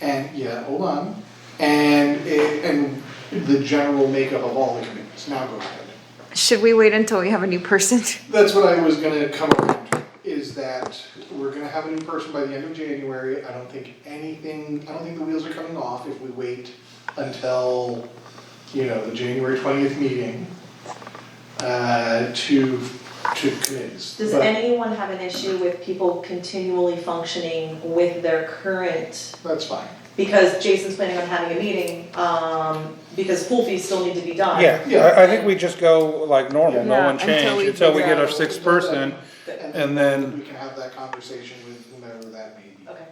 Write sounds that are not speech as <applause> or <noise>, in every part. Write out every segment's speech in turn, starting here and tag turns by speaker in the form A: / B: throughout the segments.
A: and, yeah, hold on, and it, and the general makeup of all the committees, now go ahead.
B: Should we wait until we have a new person?
A: That's what I was gonna come around to, is that we're gonna have a new person by the end of January, I don't think anything, I don't think the wheels are coming off if we wait until, you know, the January twentieth meeting, uh, to, to committees.
C: Does
A: But-
C: anyone have an issue with people continually functioning with their current?
A: That's fine,
C: Because Jason's planning on having a meeting, um, because pool fees still need to be done.
A: Yeah.
D: Yeah, I, I think we just go like normal, no
B: Yeah,
D: one
B: until we
D: change, until we
B: figure
D: get our
B: out-
D: sixth person.
A: and then we can have that conversation with whomever that may be.
C: Okay,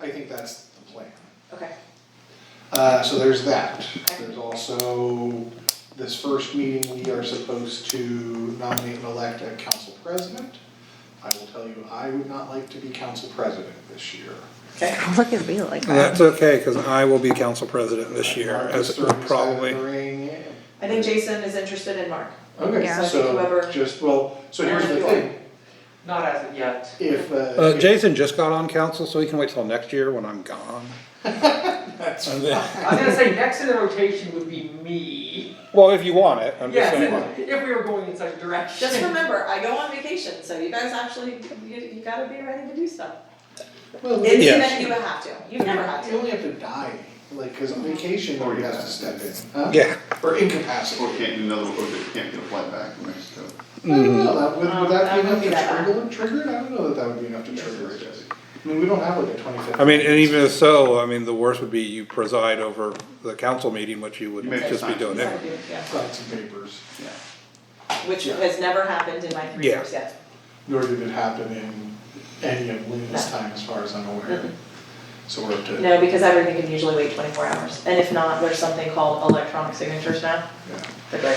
A: I think that's the plan.
C: okay.
A: Uh, so there's that. There's also, this first meeting, we are supposed to nominate and elect a council president. I will tell you, I would not like to be council president this year.
C: Okay.
B: Look at me like that.
D: That's okay, cause I will be council president this year,
A: Mark is
D: as
A: throwing his hat in the
D: probably.
A: ring.
C: I think Jason is interested in Mark.
B: Yeah.
A: Okay,
C: So I think
A: so
C: whoever-
A: just, well, so here's the thing,
E: Not as of yet.
C: <laughs>
A: if, uh.
D: Uh,
A: if-
D: Jason just got on council, so he can wait till next year when I'm gone.
A: That's
D: And then-
E: I was gonna say, next in the rotation would be me.
D: Well, if you want it, I'm just saying.
E: Yes, if- if we were going in such a direction.
C: Just remember, I go on vacation, so you guys actually, you, you gotta be ready to do stuff.
A: Well,
C: In the
D: Yeah.
C: event you have to, you've never had
A: You
C: to.
A: only have to die, like, cause on vacation, or you have to step in, huh?
D: Yeah,
A: Or incapacitated.
F: Or can't do another, or they can't get a flight back from Mexico.
A: I don't know, that would, would that
C: Um,
A: be
C: that
A: enough
C: wouldn't be that
A: to trigger,
C: bad.
A: trigger it? I don't know that that would be enough to trigger it. I mean, we don't have like a twenty-fifth.
D: I mean, and even if so, I mean, the worst would be you preside over the council meeting, which you would
F: You make
D: just be
F: it
D: doing anyway.
C: Yeah.
A: Sign some papers,
F: Yeah.
C: Which has never happened in my three
D: Yeah.
C: years yet.
A: nor did it happen in any of Lynn's time, as far as I'm aware.
C: Mhm.
A: So we're up to, yeah,
C: No, because everything can usually wait twenty-four hours, and if not, there's something called electronic signatures now, they're great.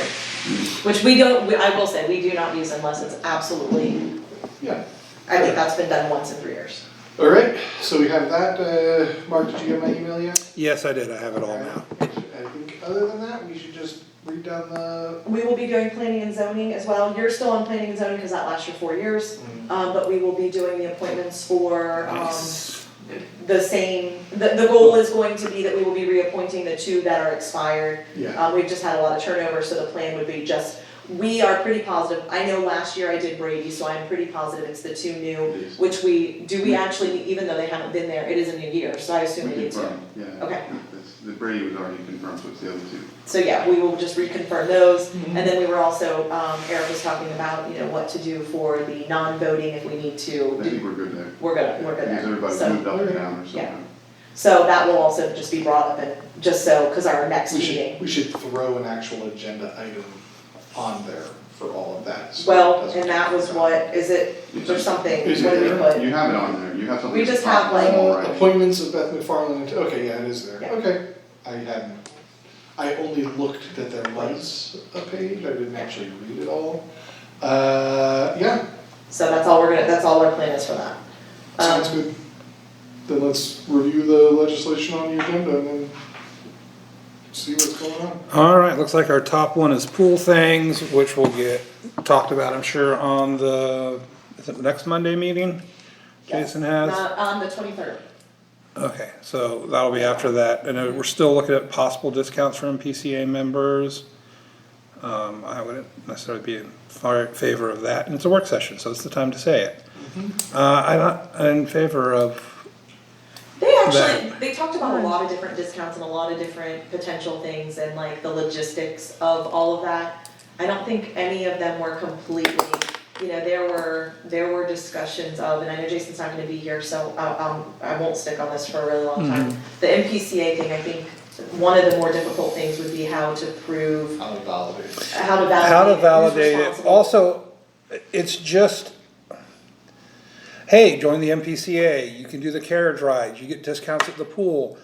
C: Which we don't, we- I will say, we do not use unless it's absolutely,
A: yeah.
C: I think that's been done once in three years.
A: All right, so we have that, uh, Mark, did you get my email yet?
D: Yes, I did, I have it all now.
A: I think, other than that, we should just read down the,
C: We will be doing planning and zoning as well, you're still on planning and zoning because that lasts you four years, um, but we will be doing the appointments for, um, the same, the, the goal is going to be that we will be reappointing the two that are expired.
A: yeah,
C: Um, we've just had a lot of turnover, so the plan would be just, we are pretty positive, I know last year I did Brady, so I'm pretty positive it's the two new,
F: Yes.
C: which we, do we actually, even though they haven't been there, it is a new year, so I assume we
F: We
C: need to.
F: confirmed, yeah.
C: Okay.
F: That's- The Brady was already confirmed, so it's the other two.
C: So yeah, we will just reconfirm those, and then we were also, um, Eric was talking about, you know, what to do for the non-voting if we need
F: I
C: to,
F: think
C: do-
F: we're good there.
C: we're gonna, we're gonna,
F: Because everybody
C: so-
F: moved up and down or something.
C: Yeah. So that will also just be brought up and just so, cause our next
A: we should,
C: meeting,
A: we should throw an actual agenda item on there for all of that, so it
C: well,
A: doesn't
C: and that was
A: get-
C: what, is it, there's something,
A: Is
C: what do we
A: it-
C: put?
F: You have it on there, you have something.
C: We just have, like-
F: All
A: Uh,
F: right.
A: appointments of Beth McFarland, okay, yeah, it is there,
C: Yeah.
A: okay, I hadn't, I only looked that there was a page, I didn't actually read it all. Uh, yeah,
C: So that's all we're gonna, that's all our plan is for that.
A: sounds
C: Um,
A: good. Then let's review the legislation on the agenda and then see what's going on.
D: All right, looks like our top one is pool things, which will get talked about, I'm sure, on the, is it next Monday meeting? Jason has,
C: Not on the twenty-third.
D: okay, so that'll be after that, and uh, we're still looking at possible discounts for MPCA members. Um, I wouldn't necessarily be in far favor of that, and it's a work session, so it's the time to say it. Uh, I'm not in favor of,
C: They actually,
D: That-
C: they talked about a lot of different discounts and a lot of different potential things and like the logistics of all of that. I don't think any of them were completely, you know, there were, there were discussions of, and I know Jason's not gonna be here, so I, um, I won't stick on this for a really long time.
D: Mm-hmm.
C: The MPCA thing, I think, one of the more difficult things would be how to prove,
A: I'll validate.
C: how to
D: how to
C: validate
D: validate
C: who's
D: it,
C: responsible.
D: also, it's just, hey, join the MPCA, you can do the carriage rides, you get discounts at the pool.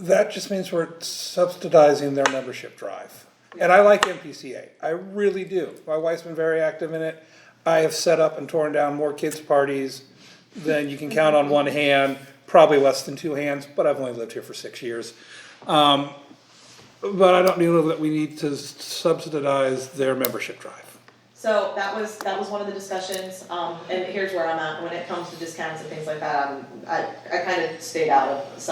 D: That just means we're subsidizing their membership drive. And I like MPCA, I really do. My wife's been very active in it. I have set up and torn down more kids' parties than you can count on one hand, probably less than two hands, but I've only lived here for six years. Um, but I don't know that we need to subsidize their membership drive.
C: So that was, that was one of the discussions, um, and here's where I'm at, when it comes to discounts and things like that, I'm- I, I kind of stayed out of some